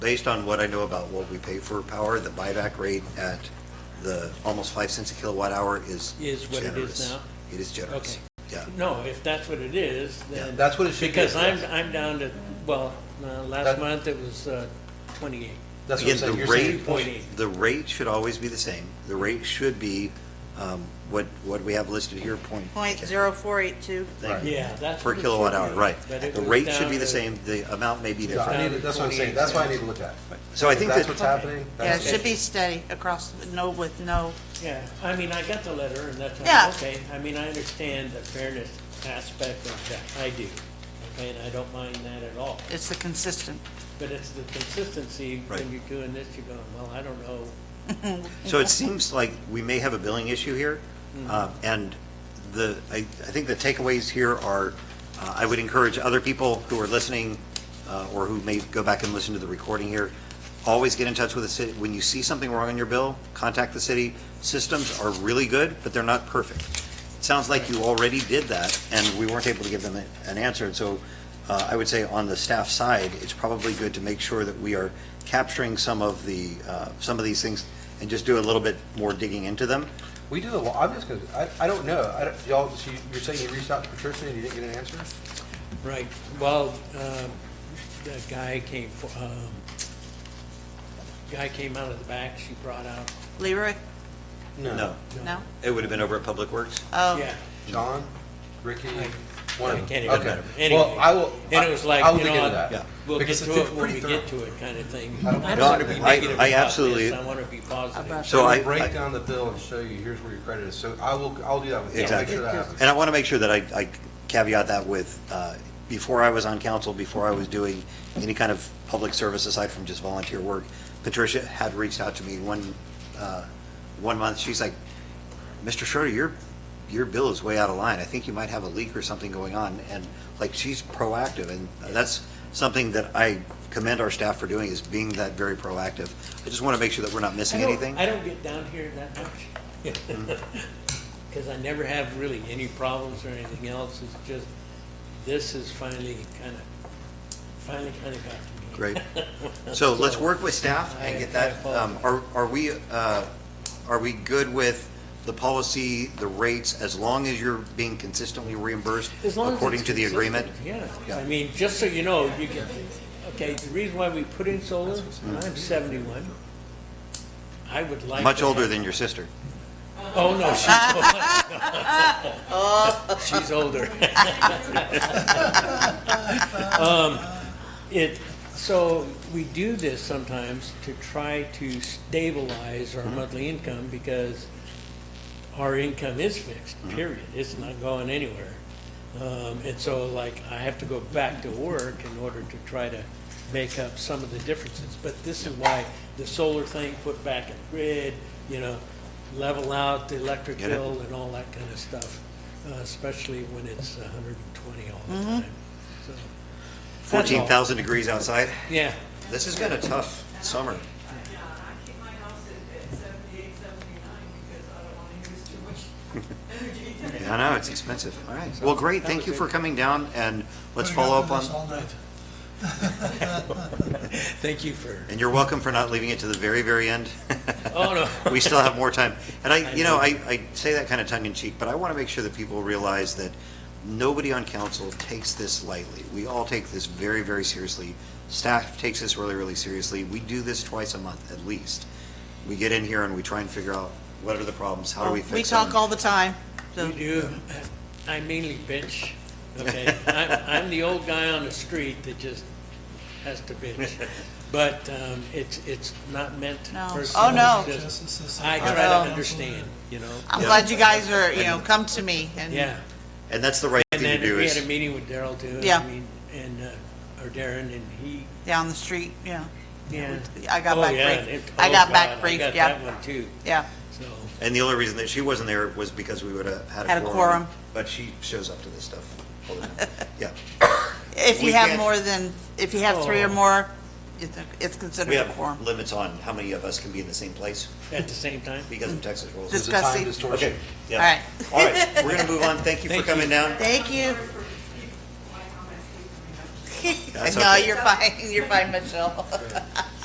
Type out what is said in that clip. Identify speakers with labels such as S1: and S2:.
S1: based on what I know about what we pay for power, the buyback rate at the almost five cents a kilowatt hour is
S2: Is what it is
S1: generous.
S2: now?
S1: It is generous.
S2: Okay.
S1: Yeah.
S2: No, if that's what it is, then.
S3: That's what it should be.
S2: Because I'm, I'm down to, well, uh, last
S3: That-
S2: month it was uh, 28.
S3: That's what I'm
S1: Again,
S3: saying.
S1: the
S3: You're saying-
S1: rate, the rate should always be the same. The rate should be um, what, what we have listed here, point.
S4: Point zero four eight two.
S1: Thank you.
S2: Yeah, that's.
S1: Per
S2: what it
S1: kilowatt
S2: should
S1: hour,
S2: be.
S1: right.
S2: But it
S1: The
S2: was
S1: rate
S2: down
S1: should be the
S2: to-
S1: same, the amount may be
S3: Yeah, I
S1: different.
S3: need to- That's what I'm saying. That's why I need to look at it.
S1: So I think
S3: That's
S1: that-
S3: what's happening.
S4: Yeah, it
S3: That's-
S4: should be steady across, no with no,
S2: Yeah, I mean, I got the letter and that's,
S4: Yeah.
S2: okay, I mean, I understand the fairness aspect of that, I do. Okay, and I don't mind that at all.
S4: it's the consistent.
S2: But it's the consistency,
S1: Right.
S2: when you're doing this, you're going, well, I don't know.
S1: So it seems like we may have a billing issue here, uh, and the, I, I think the takeaways here are, uh, I would encourage other people who are listening, uh, or who may go back and listen to the recording here, always get in touch with the city, when you see something wrong on your bill, contact the city. Systems are really good, but they're not perfect. It sounds like you already did that, and we weren't able to give them a- an answer, and so uh, I would say on the staff side, it's probably good to make sure that we are capturing some of the, uh, some of these things and just do a little bit more digging into them.
S3: We do a lot, I'm just gonna, I, I don't know. I don't, y'all, so you- you're saying you reached out to Patricia and you didn't get an answer?
S2: Right, well, um, the guy came, fo- um, guy came out of the back, she brought out,
S4: Leroy,
S1: No,
S4: no?
S1: it would have been over at Public Works.
S4: Oh,
S2: yeah.
S3: John, Ricky,
S2: I-
S3: one
S2: I
S3: of them.
S2: can't even
S3: Okay.
S2: remember.
S3: Well,
S2: Anyway.
S3: I will.
S2: And it was like,
S3: I will
S2: you
S3: look
S2: know,
S3: into that.
S1: Yeah.
S2: We'll get
S3: Because
S2: to
S3: it's- it's
S2: it when
S3: pretty
S2: we
S3: thorough.
S2: get to it, kind of thing.
S3: I don't
S2: I
S3: know.
S2: don't want to be
S1: I-
S2: negative
S1: I
S2: about
S1: absolutely-
S2: this, I want to be positive.
S4: About-
S1: So I,
S3: We'll break
S1: I-
S3: down the bill and show you, here's where your credit is. So I will, I'll do that with you. I'll make
S1: exactly.
S3: sure that happens.
S1: And I want to make sure that I I caveat that with, uh, before I was on council, before I was doing any kind of public service aside from just volunteer work, Patricia had reached out to me one, uh, one month, she's like, Mr. Schroeder, your, your bill is way out of line. I think you might have a leak or something going on. And like, she's proactive and that's something that I commend our staff for doing is being that very proactive. I just want to make sure that we're not
S2: I
S1: missing
S2: don't-
S1: anything.
S2: I don't get down here that much. Because I never have really any problems or anything else, it's just, this is finally kind of, finally kind of got to me.
S1: Great. So let's work with staff and get that, um, are, are we, uh, are we good with the policy, the rates, as long as you're being consistently reimbursed
S2: As long as
S1: according
S2: it's
S1: to the agreement?
S2: consistent,
S1: Yeah.
S2: Yeah, I mean, just so you know, you can, okay, the reason why we put in solar, I'm seventy-one. I would like.
S1: Much
S2: to
S1: older
S2: have-
S1: than your sister.
S2: Oh, no, she's older. She's older. Um, It, so we do this sometimes to try to stabilize
S1: Mm-hmm.
S2: our monthly income because our income is fixed,
S1: Mm-hmm.
S2: period. It's not going anywhere. Um, And so like, I have to go back to work in order to try to make up some of the differences. But this is why the solar thing, put back in the grid, you know, level out the electric
S1: Get it.
S2: bill and all that kind of stuff, uh, especially when it's 120 all the time. So that's all.
S1: Fourteen thousand degrees outside.
S2: Yeah,
S1: This has been a tough summer.
S5: Yeah, I keep my house at at seventy-eight, seventy-nine, because I don't want to use too much energy.
S1: I know, it's expensive. All right. Well, great. Thank you for coming down and let's follow up on,
S2: thank you for,
S1: and you're welcome for not leaving it to the very, very end.
S2: oh, no.
S1: we still have more time. And I, you know, I, I say that kind of tongue in cheek, but I want to make sure that people realize that nobody on council takes this lightly. We all take this very, very seriously. Staff takes this really, really seriously. We do this twice a month at least. We get in here and we try and figure out what are the problems, how do we
S4: Oh, we
S1: fix them?
S4: talk all the time, so.
S2: We do, I mainly bitch, okay? I'm, I'm the old guy on the street that just has to bitch. But, um, it's, it's not meant
S4: No. Oh,
S2: personally.
S4: no.
S2: I try
S4: Oh.
S2: to understand, you know?
S4: I'm
S1: Yeah.
S4: glad you guys are, you know, come to me and.
S2: Yeah.
S1: And that's the right
S2: And
S1: thing to
S2: then
S1: do
S2: we had
S1: is,
S2: a meeting with Daryl too. and I
S4: Yeah.
S2: mean, And, uh, or Darren, and he,
S4: Down the street, yeah.
S2: yeah.
S4: I got
S2: Oh,
S4: back
S2: yeah,
S4: briefed.
S2: it-
S4: I
S2: oh,
S4: got back
S2: God,
S4: briefed,
S2: I got
S4: yeah.
S2: that one too,
S4: Yeah,
S2: so,
S1: and the only reason that she wasn't there was because we would have had a quorum.
S4: Had a quorum.
S1: But she shows up to this stuff all the time. Yeah.
S4: if
S1: We
S4: you have
S1: can't-
S4: more than, if you have three or
S2: Oh.
S4: more, it's it's
S1: We
S4: considered a quorum.
S1: have limits on how many of us can be in the same place
S2: at the same time.
S1: because of Texas rules.
S3: There's a time
S4: Discussing.
S3: distortion.
S1: Yeah.
S4: All right.
S1: All right, we're gonna move on. Thank you for
S2: Thank
S1: coming
S2: you.
S1: down.
S4: Thank you.
S5: My comments keep coming up.
S1: That's
S4: No,
S1: okay.
S4: you're fine, you're fine, Michelle.